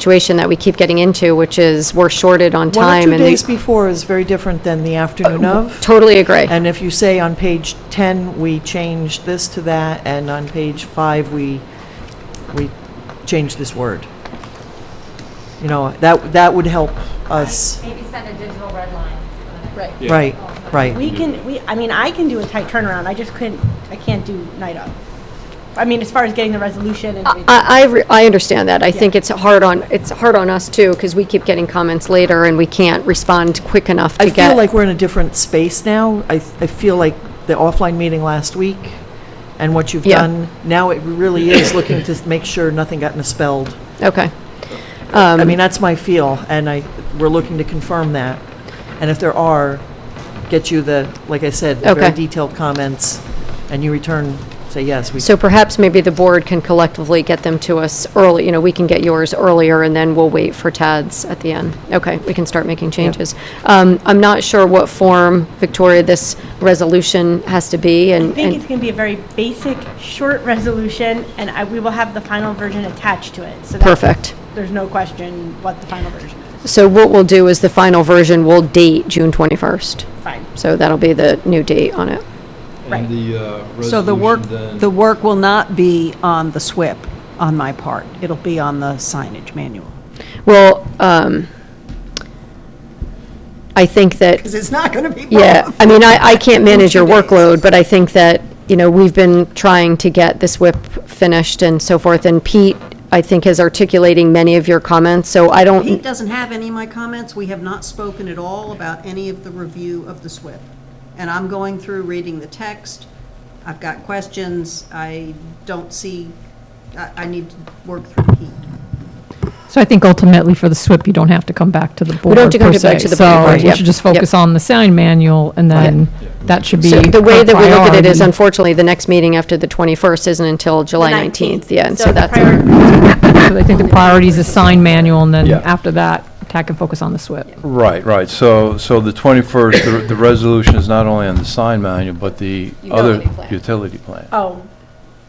situation that we keep getting into, which is we're shorted on One or time two and days they before is very different than the afternoon of. totally agree. And if you say on page 10, we changed this to that, and on page 5, we, we changed this word. You know, that, that would help us, Maybe send a digital red line. for the next- Right. right, right. We can, we, I mean, I can do a tight turnaround, I just couldn't, I can't do night of. I mean, as far as getting the resolution and. everything. I, I, re- I understand that. I think it's hard on, it's hard on us too, because we keep getting comments later and we can't respond quick enough to I get. feel like we're in a different space now. I, I feel like the offline meeting last week and what you've Yeah. done, now it really is looking to make sure nothing got misspelled. Okay. Um, I mean, that's my feel, and I, we're looking to confirm that. And if there are, get you the, like I said, the very Okay. detailed comments, and you return, say, yes, we, So perhaps maybe the board can collectively get them to us early, you know, we can get yours earlier, and then we'll wait for Tad's at the end. Okay, we can start making changes. Um, I'm not sure what form, Victoria, this resolution has to be, and, I think it's and, going to be a very basic, short resolution, and I, we will have the final version attached to it. So that perfect. There's no question what the final version is. So what we'll do is the final version will date June 21st. Fine, So that'll be the new date on it. Right. And the uh, So the work, resolution the then, work will not be on the SWIP on my part. It'll be on the signage manual. Well, um, I think that Because it's not going to be Yeah, I mean, I, I can't manage your two days. workload, but I think that, you know, we've been trying to get this whip finished and so forth, and Pete, I think, is articulating many of your comments, so I Pete don't, doesn't have any of my comments. We have not spoken at all about any of the review of the SWIP. And I'm going through, reading the text. I've got questions. I don't see, I, I need to work through Pete. So I think ultimately for the SWIP, you don't have to come back to the board don't have to come per to- back to se. the board, So we yep, should just yep. focus on the sign manual and then that should be so the way our that we look at it is priority. unfortunately, the next meeting after the 21st isn't until July 19th. 19th, yeah, and So so the that's. So I think the priority is the sign manual and then Yeah. after that, attack and focus on the SWIP. right, right. So, so the 21st, the- the resolution is not only on the sign manual, but the other Utility plan. utility plan. oh,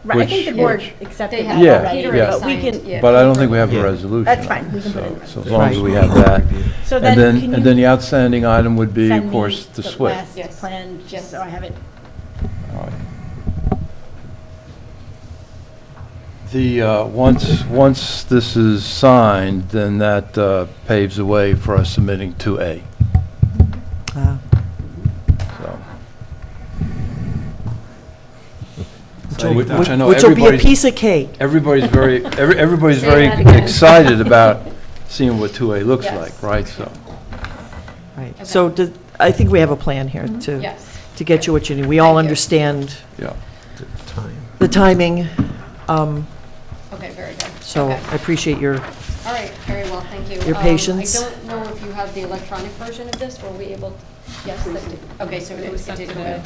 right, I think Which- the board which- accepted that have Yeah, already. Peter yeah. but we can- But I don't think we have a resolution. That's on fine. it. We can put it in So- the So as long as we have that. So And then then, can and then you the outstanding item would be, send of me course, the SWIP. last Plan, just so I have it. The, uh, once, once this is signed, then that uh, paves the way for us submitting 2A, uh, so. which Which I know which will be a everybody's- piece of cake. Everybody's very, every- everybody's very excited about seeing what 2A looks like, right? So, Right. So do- I think we have a plan here to, Mm-hmm. Yes. to get you what you need. We all understand yeah. the timing, um, Okay, very good. so I appreciate your, All right, very well, thank you. Your Um, patience. I don't know if you have the electronic version of this, were we able, yes, that did- okay, so it was, it did go in.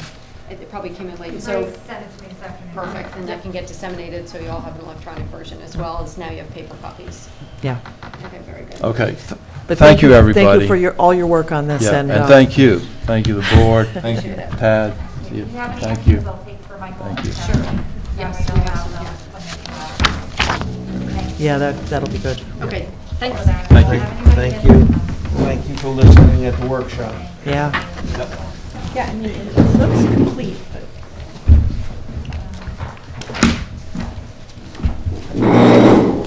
It it probably came in late, so, Please send it to me this afternoon. perfect, and that can get disseminated, so you all have an electronic version as well, as now you have paper copies. yeah. Okay, very good. Okay. But Thank you, everybody. Thank you for your, all your work on this, Yeah, and. and uh, thank you. Thank you, the board. Thank you, Tad. If you- you have any Thank questions, you. I'll take for Michael. Thank you. Sure. Yes, Yes, we have some, Yeah, that, that'll be good. Okay, thanks. Thank you. Thank you. Thank you for listening at the workshop. Yeah. Yeah, I mean, it looks complete, but. Oh,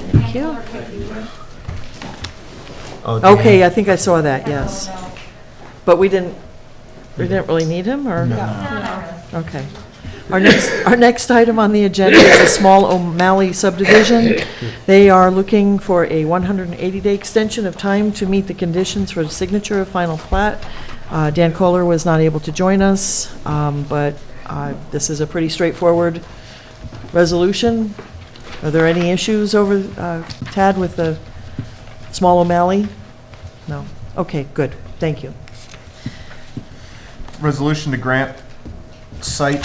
Oh, Okay, I think I saw that, yes. But we didn't, we didn't really need him, or? Okay. Our next, our next item on the agenda is a small O'Malley subdivision. They are looking for a 180-day extension of time to meet the conditions for the signature of final plat. Uh, Dan Kohler was not able to join us, um, but uh, this is a pretty straightforward resolution. Are there any issues over, uh, Tad, with the small O'Malley? No? Okay, good, thank you. Resolution to grant site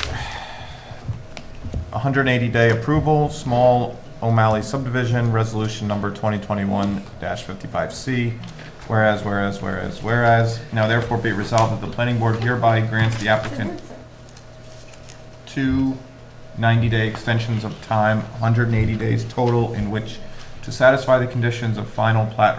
180-day approval, small O'Malley subdivision, resolution number 2021-55C. Whereas, whereas, whereas, whereas, now therefore be resolved that the planning board hereby grants the applicant two 90-day extensions of time, 180 days total, in which to satisfy the conditions of final plat